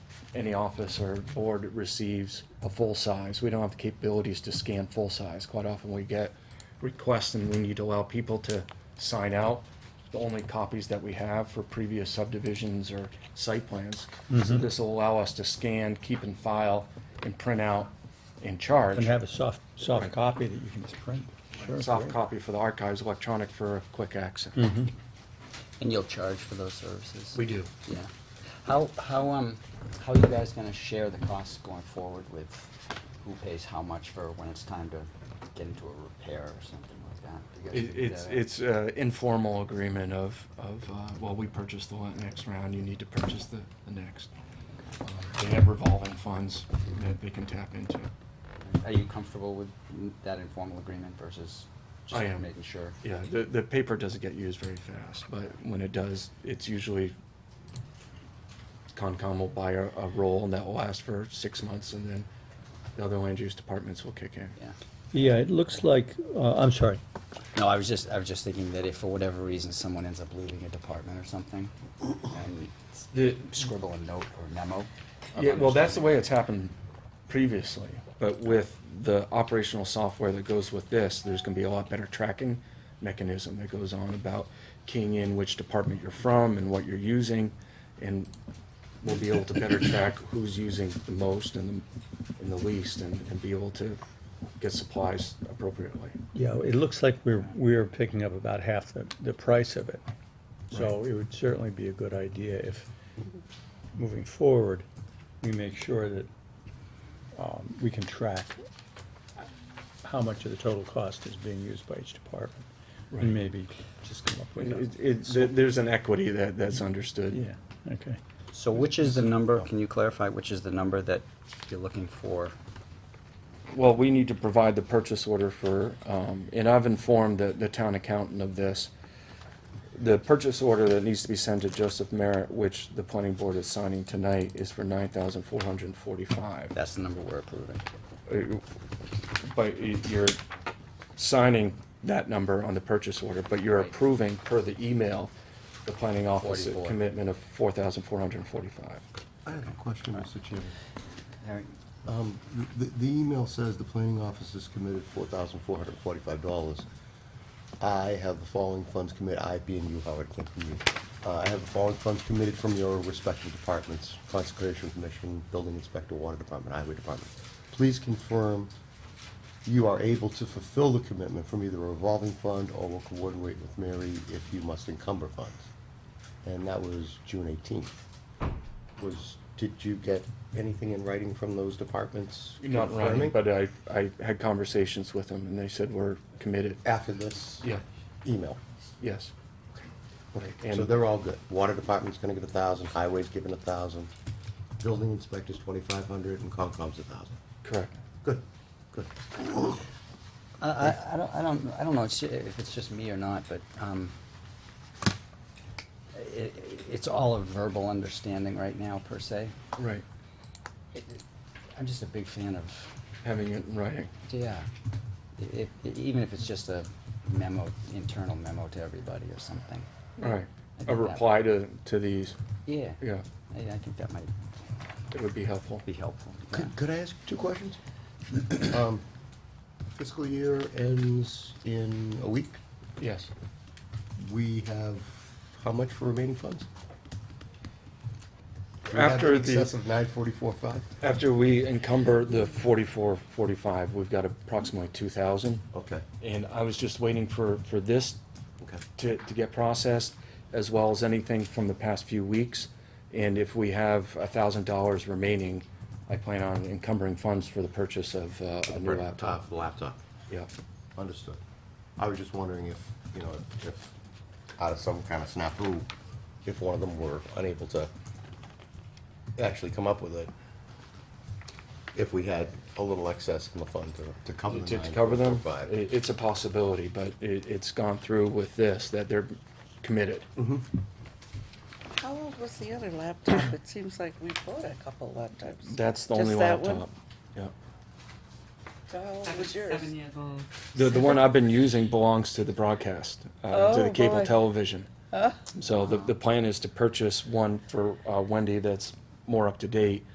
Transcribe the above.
any office or board receives a full size. We don't have the capabilities to scan full size. Quite often we get requests and we need to allow people to sign out the only copies that we have for previous subdivisions or site plans. Mm-hmm. So this will allow us to scan, keep and file, and print out and charge. And have a soft, soft copy that you can just print. Sure, Soft great. copy for the archives, electronic for quick access. Mm-hmm. And you'll charge for those services? We do. Yeah. How, how, um, how are you guys gonna share the costs going forward with who pays how much for when it's time to get into a repair or something like that? Do you guys It, figure it's, that out? it's uh, informal agreement of, of, uh, well, we purchased the one next round, you need to purchase the, the next. Um, They have revolving funds that they can tap into. Are you comfortable with that informal agreement versus I just am. making sure? Yeah, the, the paper doesn't get used very fast, but when it does, it's usually Concom will buy a, a roll and that will last for six months and then the other land use departments will kick in. Yeah. Yeah, it looks like, uh, I'm sorry, No, I was just, I was just thinking that if for whatever reason someone ends up leaving a department or something and The, scribble a note or memo. of Yeah, well, that's the understanding. way it's happened previously, but with the operational software that goes with this, there's gonna be a lot better tracking mechanism that goes on about keying in which department you're from and what you're using, and we'll be able to better track who's using the most and the, and the least, and, and be able to get supplies appropriately. yeah, it looks like we're, we're picking up about half the, the price of it. So it would certainly be a good idea if, moving forward, we make sure that, um, we can track how much of the total cost is being used by each department. Right. And maybe just come up And with It, it, there- there's an equity that, that's a, understood. yeah, okay. So which is the number, can you clarify, which is the number that you're looking for? Well, we need to provide the purchase order for, um, and I've informed the, the town accountant of this. The purchase order that needs to be sent to Joseph Merritt, which the planning board is signing tonight, is for nine thousand four hundred and forty-five. That's the number we're approving. But y- you're signing that number on the purchase order, but you're Right. approving per the email, the planning office 44. commitment of four thousand four hundred and forty-five. I have a question, Mr. Chairman. Alright. Um, The the email says the planning office has committed $4,445. I have the following funds committed, I being you, Howard, came from you. Uh, I have the following funds committed from your respective departments, Conservation Commission, Building Inspector, Water Department, Highway Department. Please confirm you are able to fulfill the commitment from either a revolving fund or will coordinate with Mary if you must encumber funds. And that was June 18th was, did you get anything in writing from those departments? Not running, confirming? but I, I had conversations with them and they said we're committed. After this? Yeah. Email. Yes. Okay, so they're all good. Water department's gonna give a thousand, highway's giving a thousand, building inspector's twenty-five hundred, and Concom's a thousand. Correct. Good, good. I, I, I don't, I don't, I don't know it's- if it's just me or not, but, um, it, it's all a verbal understanding right now, per se. Right. I'm just a big fan of Having it in writing. Yeah, if, even if it's just a memo, internal memo to everybody or something. Right. Mm-hmm. I A think that- reply to, to these, Yeah. yeah, I, I think that might it would be helpful. be helpful. yeah. Could, could I ask two questions? Um, Fiscal year ends in a week. Yes. We have how much for remaining funds? Do we have After in excess the, of nine forty-four five? after we encumber the forty-four, forty-five, we've got approximately two thousand. Okay, And I was just waiting for, for this okay. to, to get processed, as well as anything from the past few weeks. And if we have a thousand dollars remaining, I plan on encumbering funds for the purchase of uh, a new laptop. Laptop, laptop. Yeah. Understood. I was just wondering if, you know, if- if, out of some kind of snafu, if one of them were unable to actually come up with it, if we had a little excess in the fund to, to cover the To nine to cover them, point four five. it, it's a possibility, but it, it's gone through with this, that they're committed. Mm-hmm. How old was the other laptop? It seems like we bought a couple laptops. That's the Just only that one? laptop. Yeah. So How old Seven, was yours? seven years old. The, the one I've been using belongs to the broadcast, uh, to the Oh, cable boy. television. So the, the plan is to purchase one for, uh, Wendy that's uh, more up to date